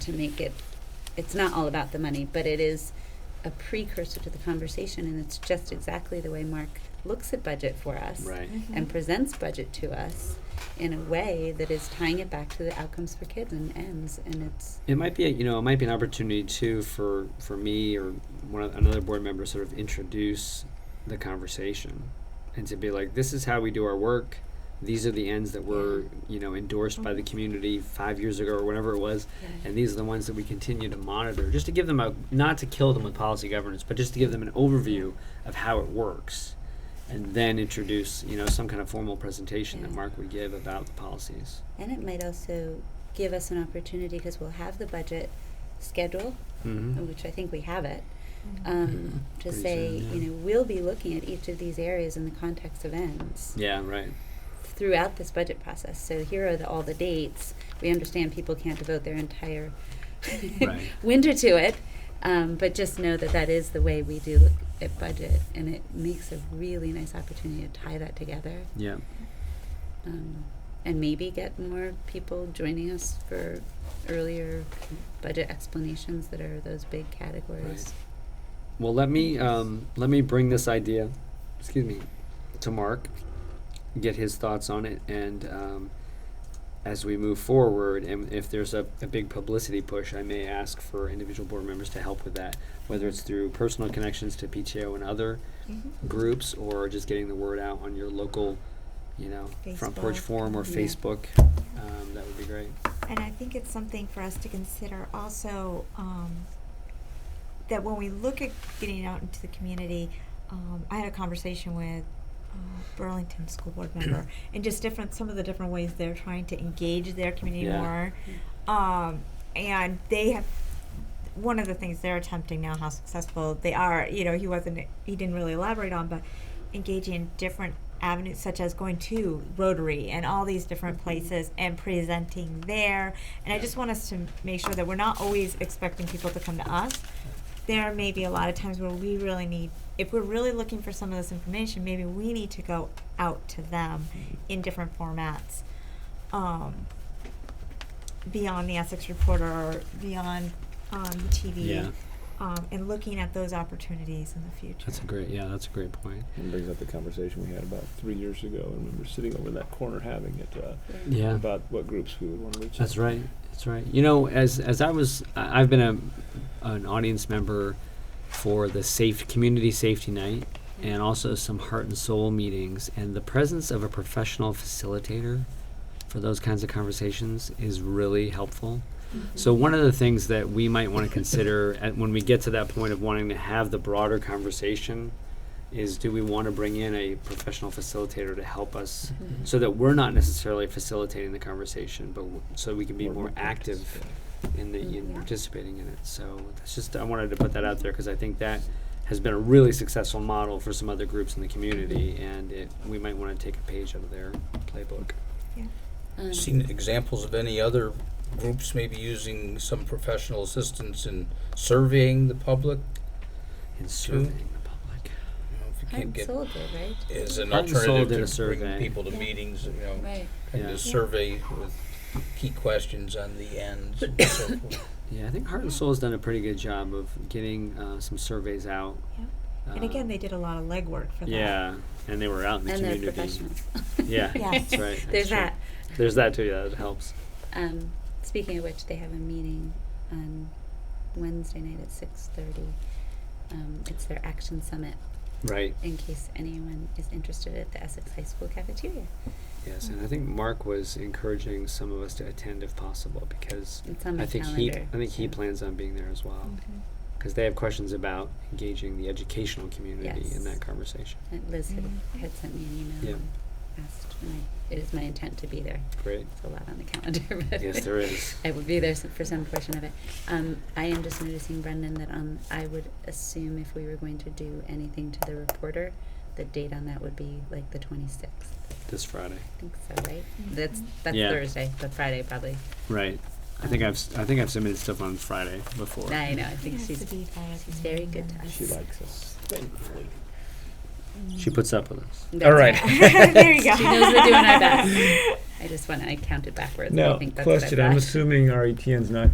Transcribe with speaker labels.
Speaker 1: to make it, it's not all about the money, but it is a precursor to the conversation, and it's just exactly the way Mark looks at budget for us
Speaker 2: Right.
Speaker 3: Mm-hmm.
Speaker 1: and presents budget to us in a way that is tying it back to the outcomes for kids and ends, and it's
Speaker 2: It might be, a, you know, it might be an opportunity too for for me or one of, another board member to sort of introduce the conversation and to be like, this is how we do our work. These are the ends that were, you know, endorsed by the community five years ago or whatever it was, and these are the ones that we continue to monitor. Just to give them a not to kill them with policy governance, but just to give them an overview of how it works, and then introduce, you know, some kind of formal presentation that
Speaker 1: Yeah.
Speaker 2: Mark would give about the policies.
Speaker 1: and it might also give us an opportunity because we'll have the budget schedule,
Speaker 2: Mm-hmm.
Speaker 1: which I think we have it.
Speaker 3: Mm-hmm.
Speaker 1: Um,
Speaker 2: Mhm.
Speaker 1: to
Speaker 2: Pretty
Speaker 1: say,
Speaker 2: soon, yeah.
Speaker 1: you know, we'll be looking at each of these areas in the context of ends.
Speaker 2: Yeah. Right.
Speaker 1: throughout this budget process. So here are the, all the dates. We understand people can't devote their entire
Speaker 2: Right.
Speaker 1: winter to it, um, but just know that that is the way we do look at budget, and it makes a really nice opportunity to tie that together,
Speaker 2: Yeah.
Speaker 1: um, and maybe get more people joining us for earlier budget explanations that are those big categories.
Speaker 2: Well, let me um, let me bring this idea, excuse me, to Mark, get his thoughts on it, and um, as we move forward, and if there's a, a big publicity push, I may ask for individual board members to help with that, whether it's through personal connections to PTO and other groups, or just getting the word out on your local, you know, front porch
Speaker 3: Facebook.
Speaker 2: forum or
Speaker 1: Yeah.
Speaker 2: Facebook. Um, that would be great.
Speaker 3: Mm-hmm. And I think it's something for us to consider also, um, that when we look at getting out into the community, um, I had a conversation with uh, Burlington school board member and just different, some of the different ways they're trying to engage their community
Speaker 2: Yeah.
Speaker 3: more. Um, and they have, one of the things they're attempting now, how successful they are, you know, he wasn't, he didn't really elaborate on, but engaging in different avenues such as going to Rotary and all these different
Speaker 1: Mhm.
Speaker 3: places and presenting there. And I just want us to make sure that we're not always expecting people to come to us. There may be a lot of times where we really need, if we're really looking for some of this information, maybe we need to go out to them
Speaker 2: Mm-hmm.
Speaker 3: in different formats. Um, beyond the Essex Reporter or beyond um, the TV.
Speaker 2: Yeah.
Speaker 3: Um, and looking at those opportunities in the future.
Speaker 2: That's a great. Yeah, that's a great point.
Speaker 4: And brings up the conversation we had about three years ago, and we were sitting over in that corner having it uh,
Speaker 2: Yeah.
Speaker 4: about what groups we would want to reach.
Speaker 2: That's
Speaker 4: out.
Speaker 2: right. That's right. You know, as as I was, I- I've been a an audience member for the safe community safety night, and also some heart and soul meetings. And the presence of a professional facilitator for those kinds of conversations is really helpful.
Speaker 1: Mm-hmm.
Speaker 2: So one of the things that we might want to consider at, when we get to that point of wanting to have the broader conversation is do we want to bring in a professional facilitator to help us
Speaker 1: Mhm.
Speaker 2: so that we're not necessarily facilitating the conversation but w- so we can be
Speaker 4: Or
Speaker 2: more
Speaker 4: what groups,
Speaker 2: active in the in
Speaker 1: Yeah.
Speaker 2: participating in it so that's just I wanted to put that out there because I think that has been a really successful model for some other groups in the community and it we might want to take a page out of their playbook
Speaker 1: Um,
Speaker 5: Seen examples of any other groups maybe using some professional assistance in surveying the public?
Speaker 2: in serving the public
Speaker 5: You know, if you
Speaker 1: Heart
Speaker 5: can't
Speaker 1: and
Speaker 5: get-
Speaker 1: soul did, right?
Speaker 5: As an
Speaker 2: Heart and Soul did a
Speaker 5: alternative to
Speaker 2: survey.
Speaker 5: bringing people to
Speaker 1: Yeah.
Speaker 5: meetings, you know,
Speaker 1: Right.
Speaker 5: and
Speaker 2: Yeah.
Speaker 5: a survey with key questions on the ends and so forth.
Speaker 2: yeah I think Heart and Soul has done a pretty good job of getting uh, some surveys out
Speaker 3: Yeah. And again,
Speaker 2: um,
Speaker 3: they did a lot of legwork for that.
Speaker 2: Yeah, and they were out in the
Speaker 1: And they're
Speaker 2: community.
Speaker 1: professionals.
Speaker 2: Yeah,
Speaker 3: Yeah.
Speaker 2: that's right. that's
Speaker 1: There's
Speaker 2: true.
Speaker 1: that.
Speaker 2: There's that too. Yeah, that helps.
Speaker 1: Um, speaking of which, they have a meeting on Wednesday night at six thirty. Um, it's their action summit.
Speaker 2: Right.
Speaker 1: In case anyone is interested at the Essex High School cafeteria,
Speaker 2: Yes, and I think Mark was encouraging some of us to attend if possible because
Speaker 1: it's on my
Speaker 2: I think he
Speaker 1: calendar. Mm.
Speaker 2: I think he
Speaker 1: so-
Speaker 2: plans on being there as well because they have questions about engaging the educational community in
Speaker 1: Yes.
Speaker 2: that conversation.
Speaker 1: and uh, Liz had,
Speaker 3: Mhm.
Speaker 1: had sent me an
Speaker 2: Yeah.
Speaker 1: email and asked. And I, it is my intent to be there.
Speaker 2: Great.
Speaker 1: It's a lot on the calendar. but
Speaker 2: yes, there is.
Speaker 1: I would be there s- for some portion of it. Um, I am just noticing, Brendan, that on, I would assume if we were going to do anything to the reporter, the date on that would be like the twenty-sixth.
Speaker 2: This Friday.
Speaker 1: I think so, right? That's,
Speaker 3: Mhm.
Speaker 1: that's
Speaker 2: Yeah.
Speaker 1: Thursday, but Friday probably.
Speaker 2: Right. I think I've s- I think I've submitted stuff on Friday before.
Speaker 1: I know, I think she's,
Speaker 3: she's
Speaker 1: she's very good to us.
Speaker 4: She likes us, thankfully.
Speaker 2: She puts up with us.
Speaker 1: That's
Speaker 5: right.
Speaker 3: there you go.
Speaker 1: She knows we're doing our best. I just wanna, I counted backwards, but I
Speaker 4: Now,
Speaker 1: think that's what I
Speaker 4: question, I'm
Speaker 1: got.
Speaker 4: assuming our E ETN's not